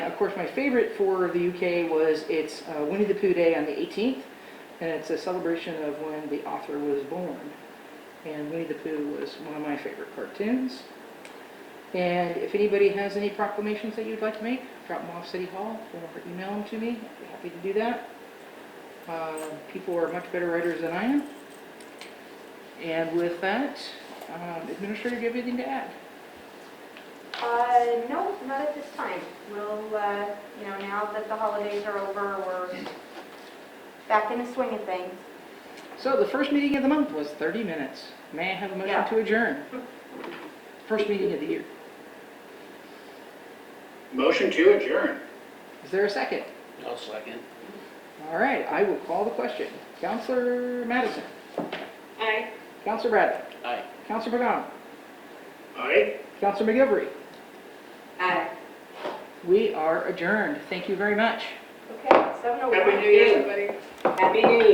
Of course, my favorite for the UK was it's uh, Winnie the Pooh Day on the 18th, and it's a celebration of when the author was born. And Winnie the Pooh was one of my favorite cartoons. And if anybody has any proclamations that you'd like to make, drop them off City Hall or email them to me. I'd be happy to do that. Uh, People are much better writers than I am. And with that, um, Administrator, do you have anything to add? Uh, no, not at this time. We'll, uh, you know, now that the holidays are over, we're back in the swing of things. So the first meeting of the month was 30 minutes. May I have a motion Yeah. to adjourn? First meeting of the year. Motion to adjourn. Is there a second? I'll second. All right, I will call the question. Counselor Madison? Aye. Counselor Bradley? Aye. Counselor McGowan? Aye. Counselor McGivory? Aye. We are adjourned. Thank you very much. Okay, so no. Happy New Year, everybody. Happy New Year.